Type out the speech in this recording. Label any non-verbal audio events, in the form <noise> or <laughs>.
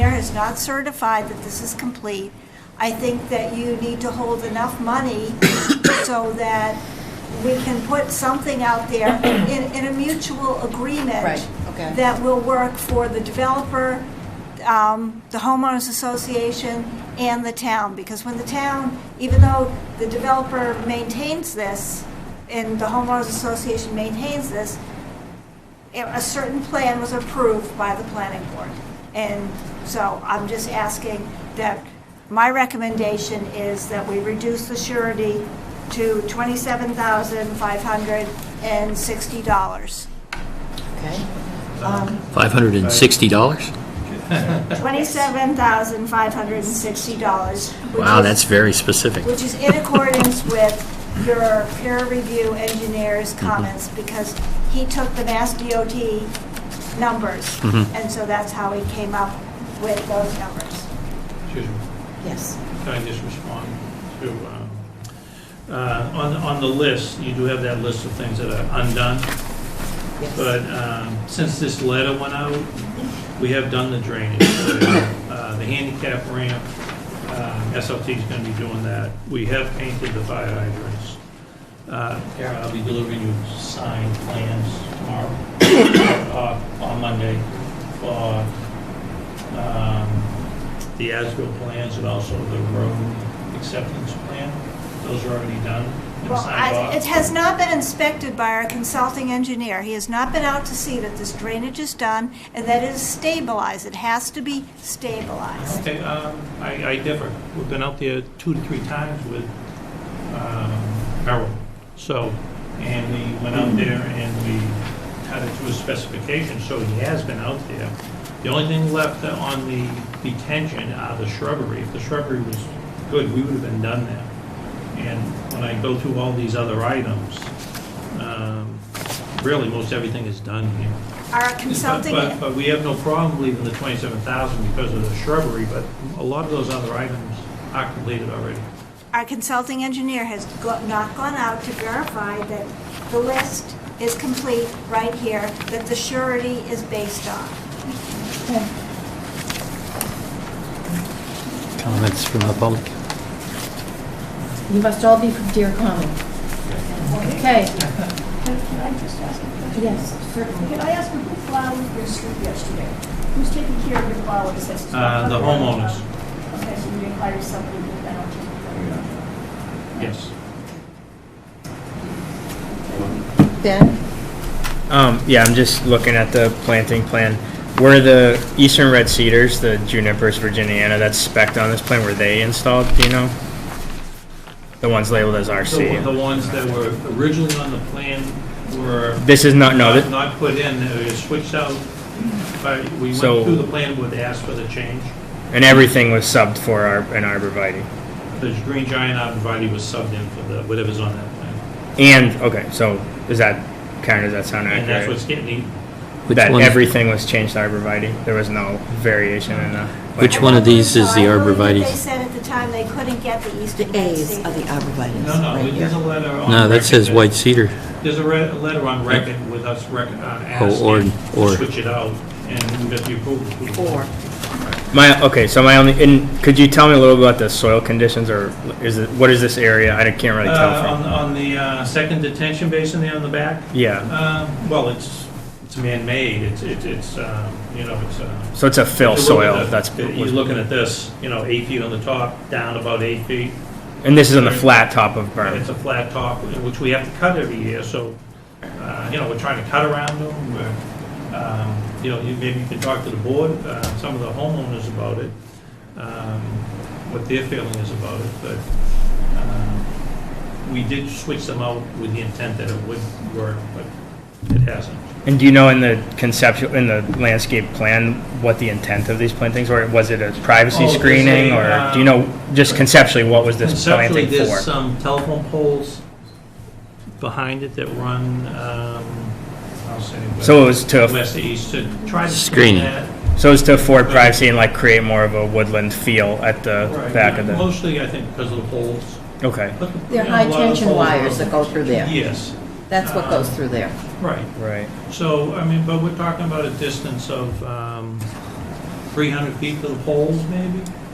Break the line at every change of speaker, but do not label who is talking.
is not certified that this is complete. I think that you need to hold enough money <coughs> so that we can put something out there <coughs> in, in a mutual agreement.
Right, okay.
That will work for the developer, um, the homeowners association, and the town. Because when the town, even though the developer maintains this, and the homeowners association maintains this, a a certain plan was approved by the planning board. And so I'm just asking that, my recommendation is that we reduce the surety to
<laughs>
$27,560.
Okay.
$560?
$27,560. which
Wow,
is-
that's very specific.
Which is in accordance with your peer review engineer's comments, because he took the Mass DOT numbers, and so that's how he came up with those numbers.
Excuse me,
Yes.
can I just respond to, um, uh, on, on the list, you do have that list of things that are undone,
Yes.
but um, since this letter went out, we have done the drainage. Uh, The handicap ramp, uh, SLT's going to be doing that. We have painted the fire hydrants. Uh, Karen, I'll be delivering you signed plans tomorrow, uh, on Monday, for um, the ASBIL plans and also the road acceptance plan. Those are already done and
Well,
signed
I- it
off.
has not been inspected by our consulting engineer. He has not been out to see that this drainage is done and that it is stabilized. It has to be stabilized.
Okay, um, I I differ. We've been out there two to three times with um, Merrill. So, and we went out there and we cut it to a specification, so he has been out there. The only thing left on the detention are the shrubbery. If the shrubbery was good, we would have been done there. And when I go through all these other items, um, really, most everything is done here.
Our
But-
consulting,
But, but we have no problem leaving the twenty-seven thousand because of the shrubbery, but a lot of those other items are completed already.
our consulting engineer has go- not gone out to verify that the list is complete right here, that the surety is based on.
Comments from the public?
You must all be from Deer Common. Okay.
Can can I just ask a question?
Yes, certainly.
Can I ask who plowed your street yesterday? Who's taking care of your flowers? That's-
Uh, the homeowners.
Okay, so you hire somebody to do that?
Yes.
Ben?
Um, yeah, I'm just looking at the planting plan. Were the eastern red cedars, the junipers virginiana that's specced on this plan, were they installed, do you know? The ones labeled as
The, the
RC?
ones that were originally on the plan were
This is not, no,
not
thi-
not put in, they were switched out. But we went
So-
through the plan with, asked for the change.
and everything was subbed for our, an arborvitae.
The green giant arborvitae was subbed in for the, whatever's on that plan.
And, okay, so is that, Karen, does that sound
And that's
accurate?
what's getting,
Which
That
one-
everything was changed to arborvitae? There was no variation in the?
Which
I
one of
believe
these is
so.
the
I believe that They
arborvitae?
said at the time they couldn't get the
The
eastern red
A's are
cedar.
the arborvitae.
no, no,
right
there's a
here.
letter on.
No, that
record
says white cedar.
There's a re- a letter on record with us rec- uh,
Oh,
or-
asking
or.
to switch it out and get the approval.
Or,
My, okay, so my only, and could you tell me a little about the soil conditions or is it, what is this area? I can't really
Uh,
tell
On, on the uh, second detention basin there on the back,
from, yeah.
uh, well, it's, it's man-made, it's, it's- it's, um, you know, it's. uh,
So it's a fill
if you're looking
soil,
at-
that's,
You're looking at this, you know, eight feet on the top, down about eight feet,
and this is on the flat top of
and it's
berm.
a flat top, which we have to cut every year, so, uh, you know, we're trying to cut around them, we're, um, you know, you- maybe you can talk to the board, uh, some of the homeowners about it, um, what their feeling is about it, but um, we did switch them out with the intent that it would work, but it hasn't.
And do you know in the conceptual, in the landscape plan, what the intent of these plantings were? Was it a
Oh,
privacy
there's
screening
a,
or,
uh,
do you know, just conceptually, what was this
Conceptually,
planting
there's
for?
some telephone poles behind it that run, um, I'll say.
So it was to,
West to east to try to.
Screening.
screen that.
so it was to
uh,
afford privacy and like create more of a woodland feel at the
Right,
back of the,
Mostly, I think, because of the poles.
okay,
But the-
they're
you know, a lot
high
of the
tension
poles are-
wires that go through there.
Yes,
That's what goes through there.
right.
right.
So, I mean, but we're talking about a distance of, um, 300 feet to the poles, maybe?